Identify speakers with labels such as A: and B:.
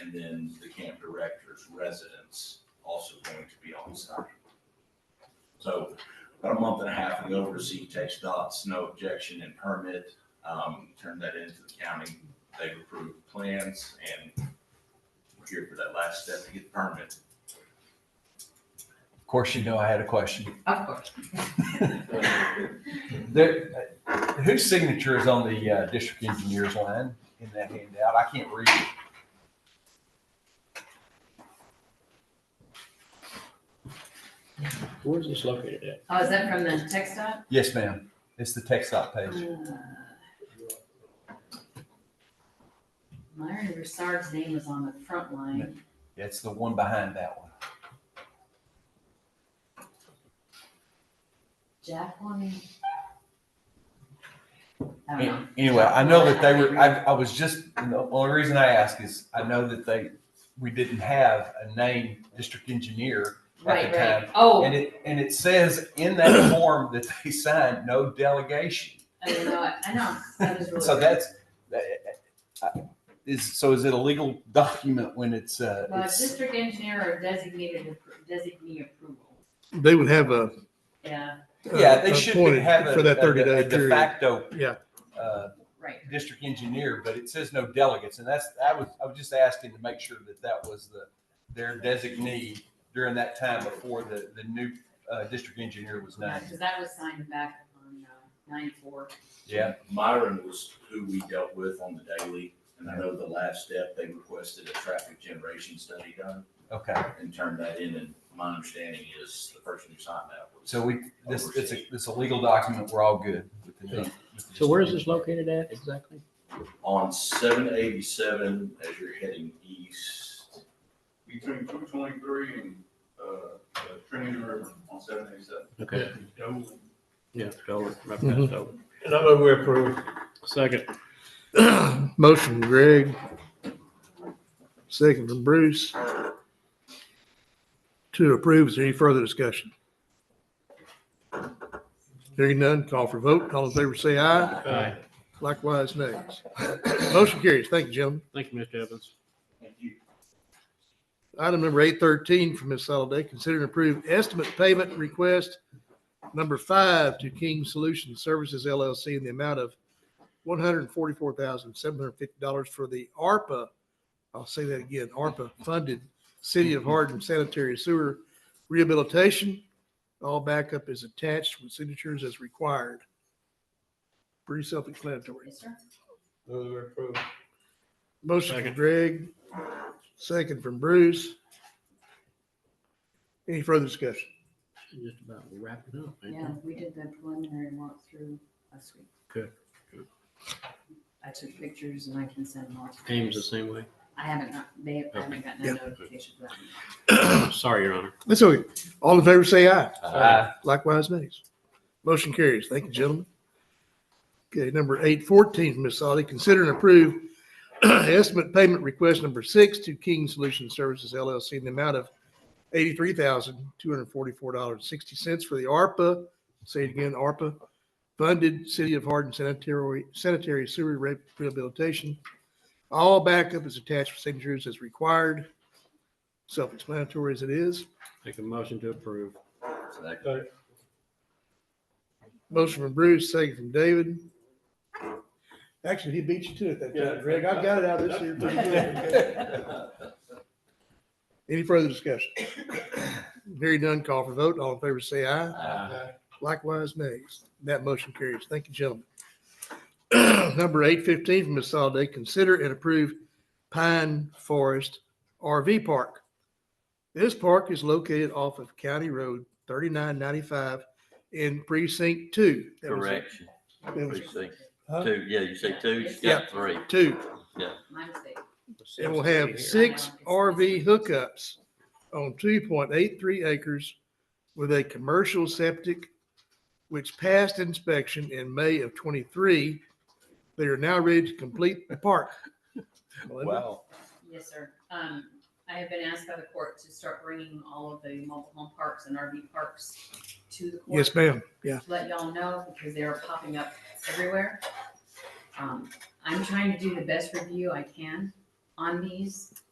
A: and then the camp director's residence also going to be on site. So about a month and a half ago, received text dots, no objection and permit, um, turned that into the county. They've approved plans and we're here for that last step to get the permit.
B: Of course, you know I had a question.
C: Of course.
B: There, uh, whose signature is on the uh, district engineer's line in that handout? I can't read it.
D: Where's this located at?
C: Oh, is that from the text Mm, dot?
B: Yes, ma'am. It's the text op page.
C: Myron Broussard's name was on the front line.
B: It's the one behind that one.
C: Jacqueline? I don't know.
B: An- Anyway, I know that they were, I, I was just, and the only reason I ask is I know that they, we didn't have a named district engineer. the
C: Right, right.
B: time.
C: Oh,
B: And it, and it says in that form that they signed, no delegation.
C: I didn't know it. I know. That was really.
B: So
C: weird.
B: that's, that- I- is, so is it a legal document when it's, uh,
C: Well,
B: it's-
C: district engineer or designated, designee approval.
D: They would have a.
C: Yeah,
B: Yeah, they should
D: uh, appointed
B: have a.
D: For that
B: a-
D: thirty
B: a
D: day
B: De
D: period.
B: facto.
D: Yeah.
B: uh,
C: right.
B: District engineer, but it says no delegates, and that's, I was, I was just asking to make sure that that was the, their designee during that time before the, the new, uh, district engineer was
C: Yeah,
B: named.
C: because that was signed back on uh, nine four.
B: Yeah,
A: Myron was who we dealt with on the daily, and I know the last step, they requested a traffic generation study done
B: okay,
A: and turned that in, and my understanding is the person who signed that was.
B: so we, this, it's a, it's a legal document, we're all good with the. with the
D: So where is
B: district.
D: this located at exactly?
A: On seven eighty-seven, as you're heading east,
E: between two twenty-three and, uh, Trinity River on seven eighty-seven.
D: Okay. Yeah, Dover, right
F: Mhm.
D: past Dover.
F: And I move we approve.
D: Second,
F: Motion from Greg. Second from Bruce. To approve, is there any further discussion? Hearing none, call for vote. All in favor, say aye.
D: Aye.
F: Likewise, nays. Motion carries. Thank you, gentlemen.
D: thank you, Mr. Evans.
A: thank you.
F: Item number eight thirteen from Ms. Soliday, consider and approve estimate payment request number five to King Solution Services LLC in the amount of one hundred and forty-four thousand, seven hundred and fifty dollars for the ARPA, I'll say that again, ARPA-funded City of Hardin sanitary sewer rehabilitation. All backup is attached with signatures as required. Pretty self-explanatory.
C: Yes, sir.
F: Motion from
D: Second.
F: Greg, second from Bruce. Any further discussion?
D: Just about wrapping up, ain't
C: Yeah,
D: it?
C: we did the preliminary walkthrough last week.
D: Good, good.
C: I took pictures and I can send them all.
D: Ames the same way.
C: I haven't, got- they, I haven't gotten
F: Yeah.
C: a notification for that.
D: Sorry, Your Honor.
F: That's okay. All in favor, say aye.
B: Uh,
F: Likewise, nays. Motion carries. Thank you, gentlemen. Okay, number eight fourteen, Ms. Solly, consider and approve estimate payment request number six to King Solution Services LLC in the amount of eighty-three thousand, two hundred and forty-four dollars and sixty cents for the ARPA, say it again, ARPA, funded City of Hardin sanitary, sanitary sewer re- rehabilitation. All backup is attached for signatures as required. Self-explanatory as it is.
D: Make a motion to approve.
A: So that-
F: Motion from Bruce, second from David. Actually, he beat you to it that time, Greg. I got it out of this here pretty quick. Any further discussion? Hearing none, call for vote. All in favor, say aye.
A: Uh,
F: Likewise, nays. That motion carries. Thank you, gentlemen. Number eight fifteen from Ms. Soliday, consider and approve Pine Forest RV Park. This park is located off of County Road thirty-nine ninety-five in precinct two. That was-
G: Correction,
F: that was
G: precinct
F: Huh?
G: two, yeah, you say two, you
F: Yeah.
G: got three.
F: Two.
C: My mistake.
F: and will have six RV hookups on two point eight three acres with a commercial septic, which passed inspection in May of twenty-three. They are now ready to complete the park. Melinda?
B: wow.
C: Yes, sir. Um, I have been asked by the court to start bringing all of the mobile home parks and RV parks to the court.
F: Yes, ma'am. Yeah.
C: to let y'all know because they are popping up everywhere. Um, I'm trying to do the best review I can on these.